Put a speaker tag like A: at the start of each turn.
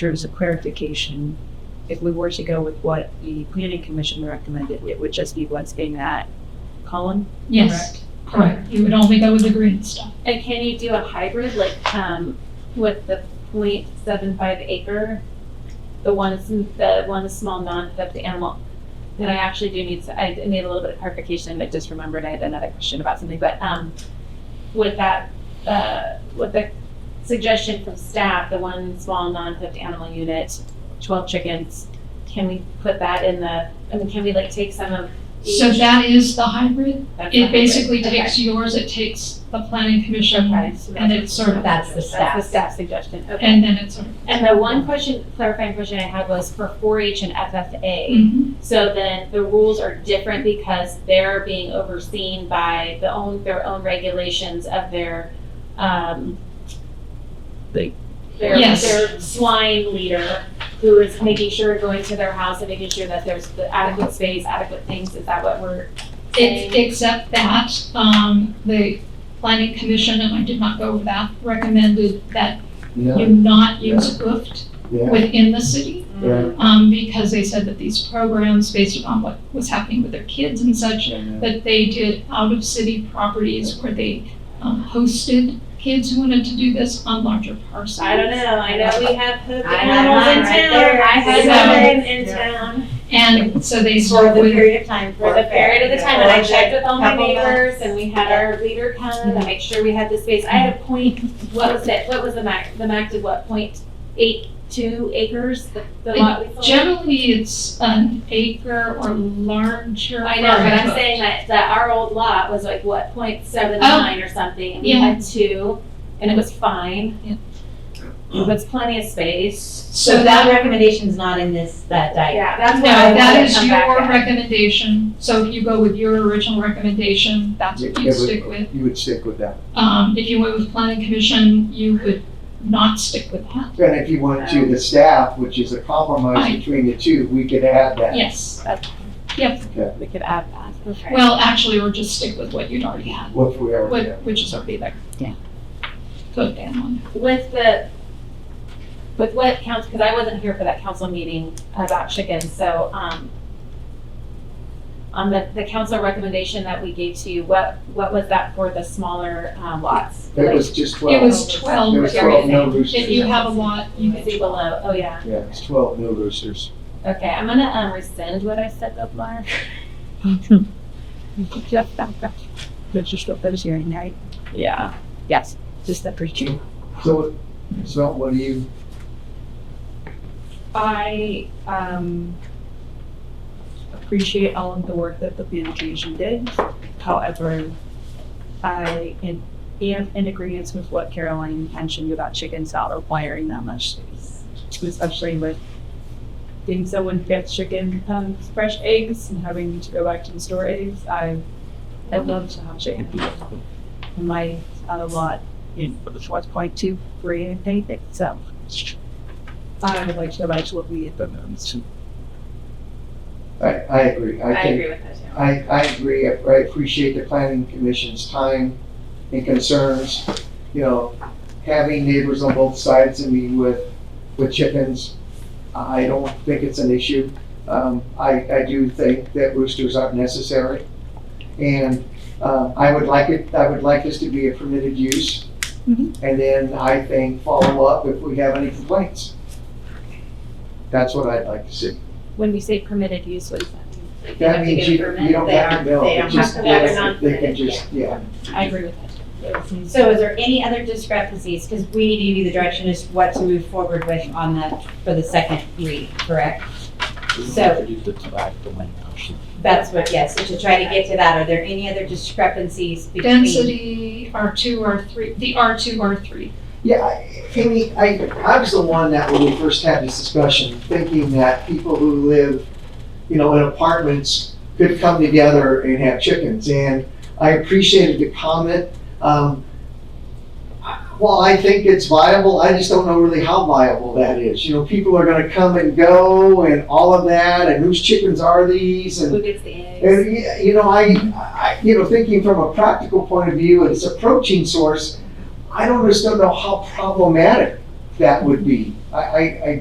A: There's a clarification. If we were to go with what the planning commission recommended, it would just be what's in that column?
B: Yes,
C: Correct.
B: correct. You would only go with the green stuff.
C: And can you do a hybrid, like, um, with the point seven five acre? The ones, the one is small non, that the animal, that I actually do need, to- I need a little bit of clarification, I just remembered I had another question about something, but, um, with that, uh, with the suggestion from staff, the one small non-hooked animal unit, twelve chickens, can we put that in the, I mean, can we like take some of each?
B: So that is the hybrid.
C: That's
B: It
C: not
B: basically
C: hybrid.
B: takes yours, it takes the planning commission,
C: Okay. Okay, so
B: and it's sort of,
C: That's the staff.
D: That's the
C: suggestion,
B: and then it's sort of.
C: And the one question, clarifying question I had was for four H and FFA.
B: Mhm.
C: So then the rules are different because they're being overseen by the own, their own regulations of their, um.
E: They-
C: Their,
B: Yes.
C: their swine leader, who is making sure, going to their house and making sure that there's the adequate space, adequate things, is that what we're
B: It's,
C: saying?
B: except that, um, the planning commission, and I did not go with that, recommended that you
D: Yeah,
B: not use hoofed
D: yeah,
B: within the city.
D: yeah.
B: um, because they said that these programs, based upon what was happening with their kids and such, that they did out of city properties where they um, hosted kids who wanted to do this on larger parcels.
C: I don't know, I know we have hoop
D: I
A: had
C: animals
A: mine
C: in
A: right
C: town,
A: there.
C: I had
B: So-
C: mine in
A: Yeah.
C: town.
B: And so they
C: For
B: sort
C: the
B: with,
C: period of time, for the period of the time, and I checked with all my
A: Couple
C: neighbors, and we had our leader come to make sure we had the space. I had a point, what was it, what was the max, the max of what, point eight two acres, the the lot we sold?
B: generally it's an acre or larger.
C: I know, but I'm
B: or-
C: saying that, that our old lot was like, what, point seven nine or something, and we
B: Oh. Yeah.
C: had two, and it was fine.
B: Yeah.
C: It was plenty of space.
B: So
F: that
B: that,
F: recommendation's not in this, that diagram.
C: Yeah, that's
B: no,
C: what I
B: that
C: wanted to
B: is
C: come back
B: your
C: at.
B: recommendation. So if you go with your original recommendation, that's what
D: Yeah,
B: you
D: but
B: stick with.
D: You would stick with that.
B: Um, if you went with planning commission, you would not stick with that.
D: And if you want to, the staff, which is a compromise
B: Right.
D: between the two, we could add that.
B: Yes,
C: We could add that, okay.
B: well, actually, or just stick with what you'd already had,
D: What if we are,
B: what,
D: yeah.
B: which is already there.
E: Yeah.
B: Go down one.
C: with the, with what council, because I wasn't here for that council meeting about chickens, so, um, on the, the council recommendation that we gave to you, what, what was that for the smaller, um, lots?
D: it was just
B: It
D: twelve.
B: was
D: There
B: twelve,
D: was twelve no
B: if you
D: roosters.
B: have a lot, you
C: You
B: could
C: can see below, oh, yeah.
D: Yeah, it's twelve no roosters.
C: Okay, I'm gonna, um, rescind what I said before.
A: Jeff, back, back. That's just what I was hearing, right?
C: Yeah.
A: Yes, just that preacher.
D: So, so what do you,
A: I um, appreciate all of the work that the planning commission did. However, I am am in agreement with what Caroline mentioned about chickens not requiring that much space. Especially with getting someone gets chicken, um, fresh eggs and having to go back to the store eggs. I, I love to have chicken. My other lot in Schwartz Point two, three, and anything, so. I would like to go back to what we had done.
D: I, I agree.
C: I
D: think-
C: agree with that too.
D: I, I agree. I I appreciate the planning commission's time and concerns. You know, having neighbors on both sides of me with, with chickens, I don't think it's an issue. Um, I, I do think that roosters aren't necessary. And, uh, I would like it, I would like this to be a permitted use.
A: Mhm.
D: And then I think follow up if we have any complaints. That's what I'd like to see.
C: When we say permitted use, what does that mean? Like, they
D: That
C: have to
D: means
C: get
D: you,
C: permit?
D: you don't
F: They
D: have to
F: aren't-
D: build,
F: they
D: it
F: don't
D: just,
C: have to- they're
D: yeah,
C: not
D: they can
C: permitted,
D: just, yeah.
C: I agree with that.
F: So is there any other discrepancies? Because we need to give you the direction as to what to move forward with on that, for the second read, correct? So- That's what, yes, to try to get to that. Are there any other discrepancies between?
B: Density, R two, R three, the R two, R three.
D: Yeah, I- Amy, I, I was the one that when we first had this discussion, thinking that people who live, you know, in apartments could come together and have chickens, and I appreciated the comment. Um, I- While I think it's viable, I just don't know really how viable that is. You know, people are gonna come and go and all of that, and whose chickens are these, and
C: Who gets the eggs?
D: And, y- you know, I, I, you know, thinking from a practical point of view, and it's a protein source, I don't just don't know how problematic that would be. I, I, I